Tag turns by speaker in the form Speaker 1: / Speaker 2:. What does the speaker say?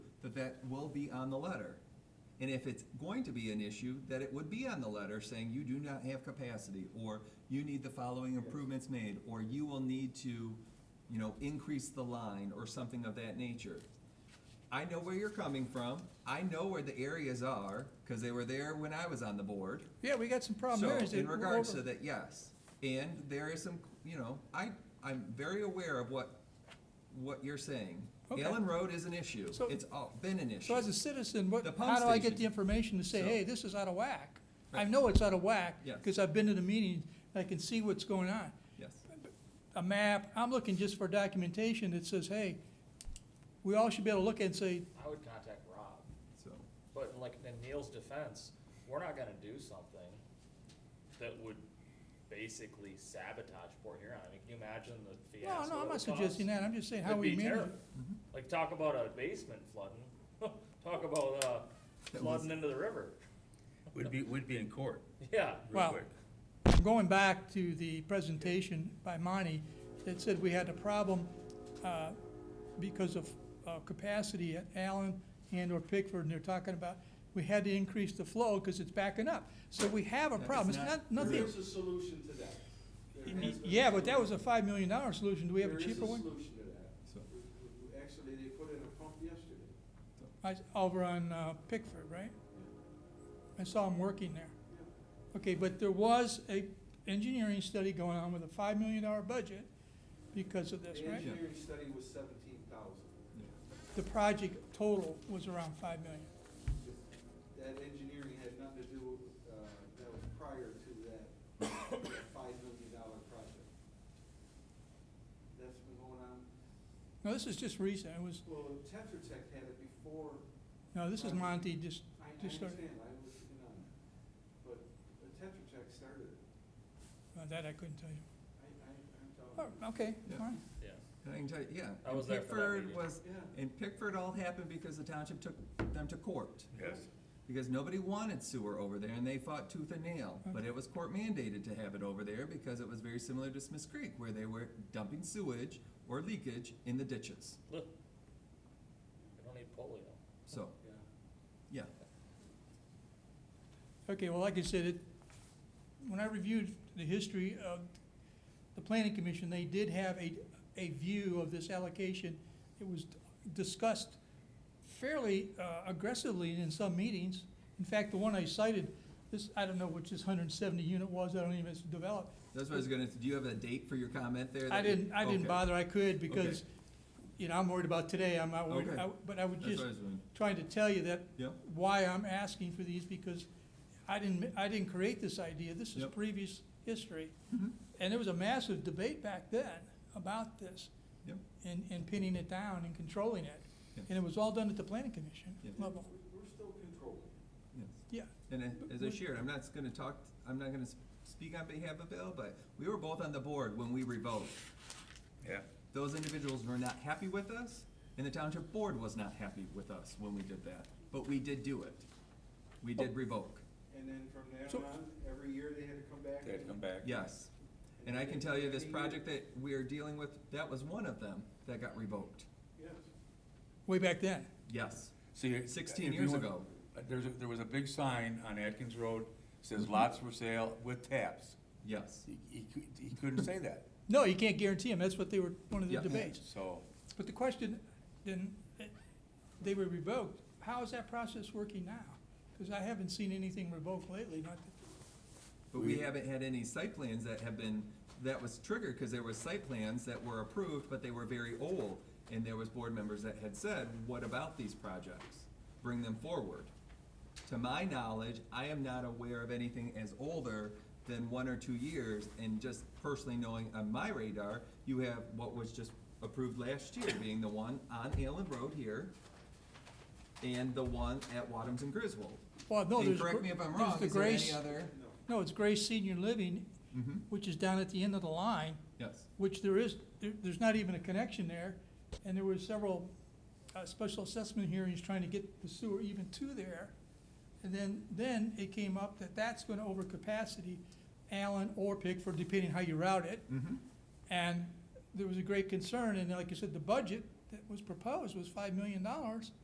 Speaker 1: but that will be on the letter. And if it's going to be an issue, that it would be on the letter saying you do not have capacity, or you need the following improvements made, or you will need to, you know, increase the line, or something of that nature. I know where you're coming from, I know where the areas are, because they were there when I was on the board.
Speaker 2: Yeah, we got some problem
Speaker 1: So,
Speaker 2: areas. that
Speaker 1: in
Speaker 2: we're
Speaker 1: regards
Speaker 2: over-
Speaker 1: to that, yes, and there is some, you know, I, I'm very aware of what, what you're saying.
Speaker 2: Okay.
Speaker 1: Allen Road is an issue,
Speaker 2: So-
Speaker 1: it's all, been an issue.
Speaker 2: So as a citizen, what,
Speaker 1: The pump
Speaker 2: how do I get the
Speaker 1: station.
Speaker 2: information to say,
Speaker 1: So-
Speaker 2: hey, this is out of whack? I
Speaker 1: Right.
Speaker 2: know it's out of whack,
Speaker 1: Yes.
Speaker 2: because I've been to the meetings, I can see what's going on.
Speaker 1: Yes,
Speaker 2: A map, I'm looking just for documentation that says, hey, we all should be able to look at and say,
Speaker 3: I would contact Rob,
Speaker 1: so,
Speaker 3: but like in Neil's defense, we're not gonna do something that would basically sabotage Port Huron. I mean, can you imagine the
Speaker 2: no,
Speaker 3: fiasco?
Speaker 2: no, I'm
Speaker 3: it
Speaker 2: not
Speaker 3: would
Speaker 2: suggesting
Speaker 3: cause?
Speaker 2: that, I'm just saying how
Speaker 3: It'd
Speaker 2: we
Speaker 3: be
Speaker 2: manage.
Speaker 3: terrible.
Speaker 2: Mm-hmm.
Speaker 3: Like, talk about a basement flooding, talk about, uh,
Speaker 1: That was-
Speaker 3: flooding into the river,
Speaker 4: We'd be, we'd be in court
Speaker 3: yeah.
Speaker 4: real
Speaker 2: Well,
Speaker 4: quick.
Speaker 2: I'm Going back to the presentation by Monty that said we had a problem uh, because of uh, capacity at Allen and or Pickford, and they're talking about, we had to increase the flow because it's backing up. So we have a
Speaker 1: That is
Speaker 2: problem. It's
Speaker 1: not
Speaker 2: not, nothing.
Speaker 5: There is a solution to that. There has been a
Speaker 2: Yeah, but that was a
Speaker 5: solution.
Speaker 2: five million dollar solution. Do we have a
Speaker 5: There is
Speaker 2: cheaper one?
Speaker 5: solution to that.
Speaker 1: So-
Speaker 5: Actually, they put in a pump yesterday.
Speaker 2: I, over on uh, Pickford, right? I saw him working there. Okay, but there was a engineering study going on with a five million dollar budget because of this,
Speaker 5: The
Speaker 2: right?
Speaker 5: engineering study was seventeen thousand.
Speaker 2: The project total was around five million.
Speaker 5: That engineering had nothing to do, uh, that was prior to that that five million dollar project. That's been going on,
Speaker 2: No, this is just recent. It was,
Speaker 5: well, Tetra Tech had it before
Speaker 2: no, this is Monty just,
Speaker 5: I, I
Speaker 2: just started.
Speaker 5: understand, I was in on it, but the Tetra Tech started it.
Speaker 2: Uh, That I couldn't tell you.
Speaker 5: I, I, I'm
Speaker 2: Oh,
Speaker 5: telling you.
Speaker 2: okay,
Speaker 1: Yeah.
Speaker 2: fine.
Speaker 3: Yeah,
Speaker 1: and I can tell you, yeah.
Speaker 3: I
Speaker 1: and
Speaker 3: was there for that
Speaker 1: Pickford
Speaker 3: meeting.
Speaker 1: was-
Speaker 5: Yeah.
Speaker 1: And Pickford all happened because the township took them to court,
Speaker 4: Yes.
Speaker 1: because nobody wanted sewer over there, and they fought tooth and nail. But it was court mandated to have it over there, because it was very similar to Smiths Creek, where they were dumping sewage or leakage in the ditches,
Speaker 3: look, we don't need polio.
Speaker 1: so,
Speaker 5: Yeah.
Speaker 1: yeah.
Speaker 2: Okay, well, like I said, it, when I reviewed the history of the planning commission, they did have a, a view of this allocation. It was discussed fairly uh, aggressively in some meetings. In fact, the one I cited, this, I don't know which this hundred and seventy unit was, I don't even, know if it's developed.
Speaker 1: That's what I was gonna, do you have a date for your comment there?
Speaker 2: I
Speaker 1: that you-
Speaker 2: didn't, I didn't
Speaker 1: Okay.
Speaker 2: bother, I could, because, you know, I'm worried about today, I'm not worried,
Speaker 1: Okay.
Speaker 2: I- but I would
Speaker 1: That's
Speaker 2: just
Speaker 1: what I was doing.
Speaker 2: trying to tell you that
Speaker 1: Yep.
Speaker 2: why I'm asking for these, because I didn't, I didn't create this idea, this is
Speaker 1: Yep.
Speaker 2: previous history. And there was a massive debate back then about this,
Speaker 1: Yep.
Speaker 2: and, and pinning it down and controlling it.
Speaker 1: Yeah.
Speaker 2: And it was all done at the planning commission
Speaker 1: Yeah.
Speaker 2: level,
Speaker 5: We- We're still controlling.
Speaker 1: Yes.
Speaker 2: yeah.
Speaker 1: And I- as I shared, I'm not gonna talk, I'm not gonna s- speak on behalf of Bill, but we were both on the board when we revoked.
Speaker 4: Yeah.
Speaker 1: Those individuals were not happy with us, and the township board was not happy with us when we did that, but we did do it. We
Speaker 4: Oh.
Speaker 1: did revoke,
Speaker 5: And then from then
Speaker 2: So-
Speaker 5: on, every year they had to come back.
Speaker 4: They had to
Speaker 5: and-
Speaker 4: come back.
Speaker 1: yes. And I can tell you, this project that we are dealing with, that was one of them that got revoked,
Speaker 5: Yes.
Speaker 2: Way back then,
Speaker 1: yes.
Speaker 4: So you-
Speaker 1: 16
Speaker 4: if you
Speaker 1: years
Speaker 4: went-
Speaker 1: ago.
Speaker 4: uh, There's, a- there was a big sign on Atkins Road, says lots for sale with taps.
Speaker 1: Yes,
Speaker 4: He, he cou- he couldn't say that,
Speaker 2: no, you can't guarantee them, that's what they were, one of the
Speaker 1: Yeah.
Speaker 2: debates.
Speaker 4: so.
Speaker 2: But the question, then, eh, they were revoked, how is that process working now? Because I haven't seen anything revoked lately, not, that-
Speaker 1: but we
Speaker 4: We-
Speaker 1: haven't had any site plans that have been, that was triggered, cause there were site plans that were approved, but they were very old. And there was board members that had said, what about these projects? Bring them forward. To my knowledge, I am not aware of anything as older than one or two years, and just personally knowing on my radar, you have what was just approved last year, being the one on Allen Road here, and the one at Wadums and Griswold.
Speaker 2: well, no,
Speaker 1: And
Speaker 2: there's.
Speaker 1: correct
Speaker 2: gr-
Speaker 1: me if I'm
Speaker 2: there's
Speaker 1: wrong,
Speaker 2: the
Speaker 1: is there any
Speaker 2: Grace-
Speaker 1: other?
Speaker 2: No, it's Grace Senior Living,
Speaker 1: Mhm.
Speaker 2: which is down at the end of the line,
Speaker 1: Yes,
Speaker 2: which there is, there, there's not even a connection there. And there were several, uh, special assessment hearings trying to get the sewer even to there. And then, then it came up that that's gonna overcapacity Allen or Pickford, depending how you route it.
Speaker 1: mm-hmm,
Speaker 2: And there was a great concern, and like I said, the budget that was proposed was five million dollars